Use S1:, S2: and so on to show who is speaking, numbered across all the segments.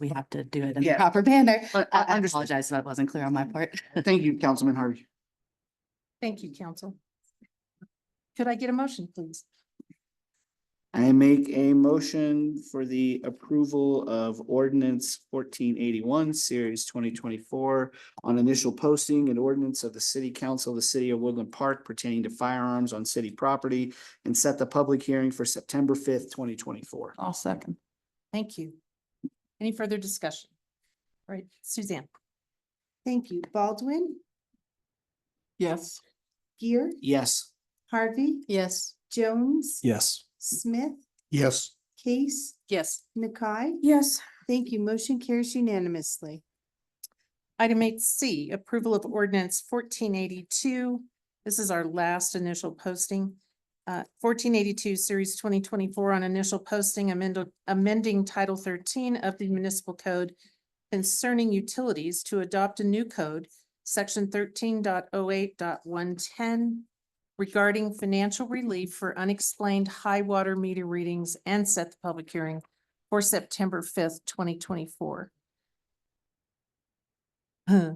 S1: we have to do it in the
S2: Yeah.
S1: proper manner.
S2: I,
S1: I I
S2: understand.
S1: apologize if that wasn't clear on my part.
S2: Thank you, Councilman Harvey.
S3: Thank you, council. Could I get a motion, please?
S2: I make a motion for the approval of ordinance fourteen eighty-one, series twenty twenty-four on initial posting and ordinance of the city council of the city of Woodland Park pertaining to firearms on city property and set the public hearing for September fifth, twenty twenty-four.
S4: I'll second.
S3: Thank you. Any further discussion? All right, Suzanne?
S5: Thank you. Baldwin,
S4: Yes.
S5: Gear,
S2: Yes.
S5: Harvey,
S3: Yes.
S5: Jones,
S6: Yes.
S5: Smith,
S6: Yes.
S5: Case,
S3: Yes.
S5: Nakai.
S4: Yes.
S5: Thank you. Motion carries unanimously.
S3: Item eight C, approval of ordinance fourteen eighty-two. This is our last initial posting. Uh, fourteen eighty-two, series twenty twenty-four on initial posting amend- amending title thirteen of the municipal code concerning utilities to adopt a new code, section 13.08.110, regarding financial relief for unexplained high water meter readings and set the public hearing for September fifth, twenty twenty-four. Huh.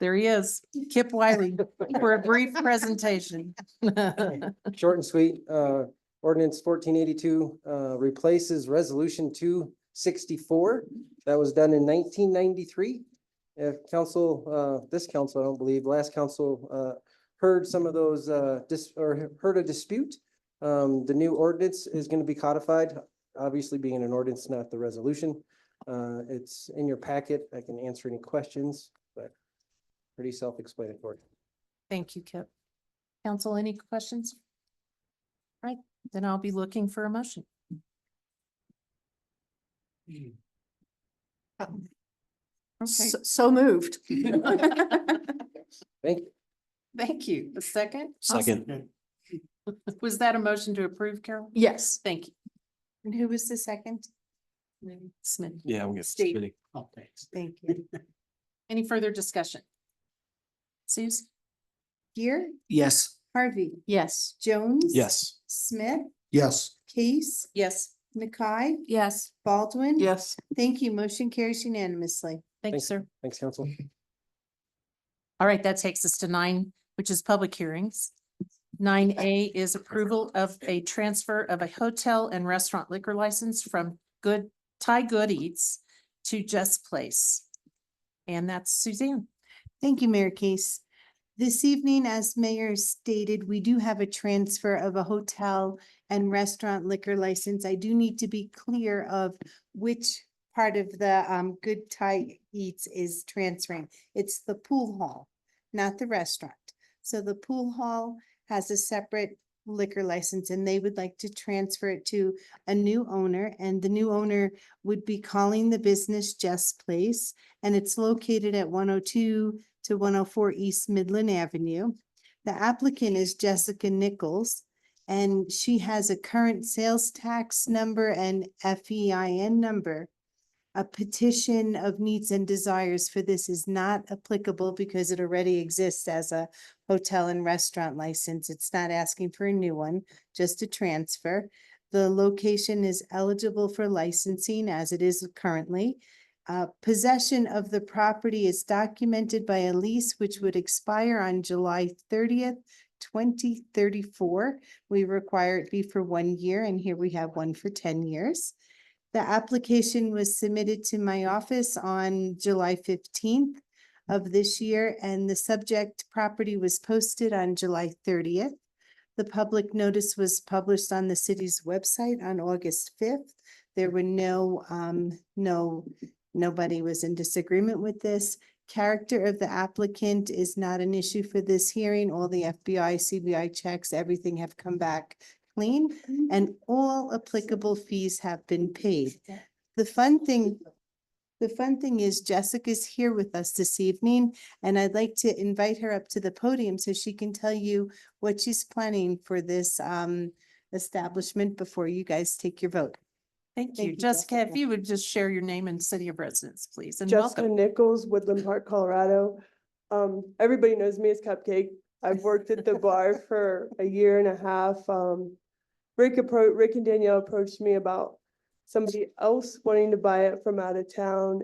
S3: There he is, Kip Wiley, for a brief presentation.
S7: Short and sweet, uh, ordinance fourteen eighty-two, uh, replaces resolution two sixty-four. That was done in nineteen ninety-three. If council, uh, this council, I don't believe, last council, uh, heard some of those, uh, dis, or heard a dispute. Um, the new ordinance is gonna be codified, obviously being an ordinance, not the resolution. Uh, it's in your packet. I can answer any questions, but pretty self-explanatory.
S3: Thank you, Kip. Council, any questions? Right, then I'll be looking for a motion.
S4: Okay. So moved.
S7: Thank you.
S3: Thank you. The second?
S6: Second.
S3: Was that a motion to approve, Carol?
S4: Yes.
S3: Thank you.
S5: And who was the second?
S3: Smith.
S6: Yeah, we'll get.
S3: Steve.
S6: spinning.
S2: Oh, thanks.
S5: Thank you.
S3: Any further discussion? Suze?
S5: Gear,
S2: Yes.
S5: Harvey,
S3: Yes.
S5: Jones.
S6: Yes.
S5: Smith,
S6: Yes.
S5: Case,
S3: Yes.
S5: Nakai,
S4: Yes.
S5: Baldwin.
S4: Yes.
S5: Thank you. Motion carries unanimously.
S3: Thank you,
S7: Thanks.
S3: sir.
S7: Thanks, council.
S3: All right, that takes us to nine, which is public hearings. Nine A is approval of a transfer of a hotel and restaurant liquor license from Good, Thai Good Eats to Just Place. And that's Suzanne.
S5: Thank you, Mayor Case. This evening, as mayor stated, we do have a transfer of a hotel and restaurant liquor license. I do need to be clear of which part of the um Good Thai Eats is transferring. It's the pool hall, not the restaurant. So the pool hall has a separate liquor license and they would like to transfer it to a new owner. And the new owner would be calling the business Just Place and it's located at one oh two to one oh four East Midland Avenue. The applicant is Jessica Nichols, and she has a current sales tax number and FEIN number. A petition of needs and desires for this is not applicable because it already exists as a hotel and restaurant license. It's not asking for a new one, just a transfer. The location is eligible for licensing as it is currently. Uh, possession of the property is documented by a lease which would expire on July thirtieth, twenty thirty-four. We require it be for one year, and here we have one for ten years. The application was submitted to my office on July fifteenth of this year, and the subject property was posted on July thirtieth. The public notice was published on the city's website on August fifth. There were no, um, no Nobody was in disagreement with this. Character of the applicant is not an issue for this hearing. All the FBI, CBI checks, everything have come back clean
S3: Mm-hmm.
S5: and all applicable fees have been paid. The fun thing, the fun thing is Jessica's here with us this evening and I'd like to invite her up to the podium so she can tell you what she's planning for this um establishment before you guys take your vote.
S3: Thank
S5: Thank
S3: you.
S5: you,
S3: Jessica, if
S5: Jessica.
S3: you would just share your name and city of residence, please, and
S8: Jessica
S3: welcome.
S8: Nichols, Woodland Park, Colorado. Um, everybody knows me as Cupcake. I've worked at the bar for a year and a half. Um, Rick appro, Rick and Danielle approached me about somebody else wanting to buy it from out of town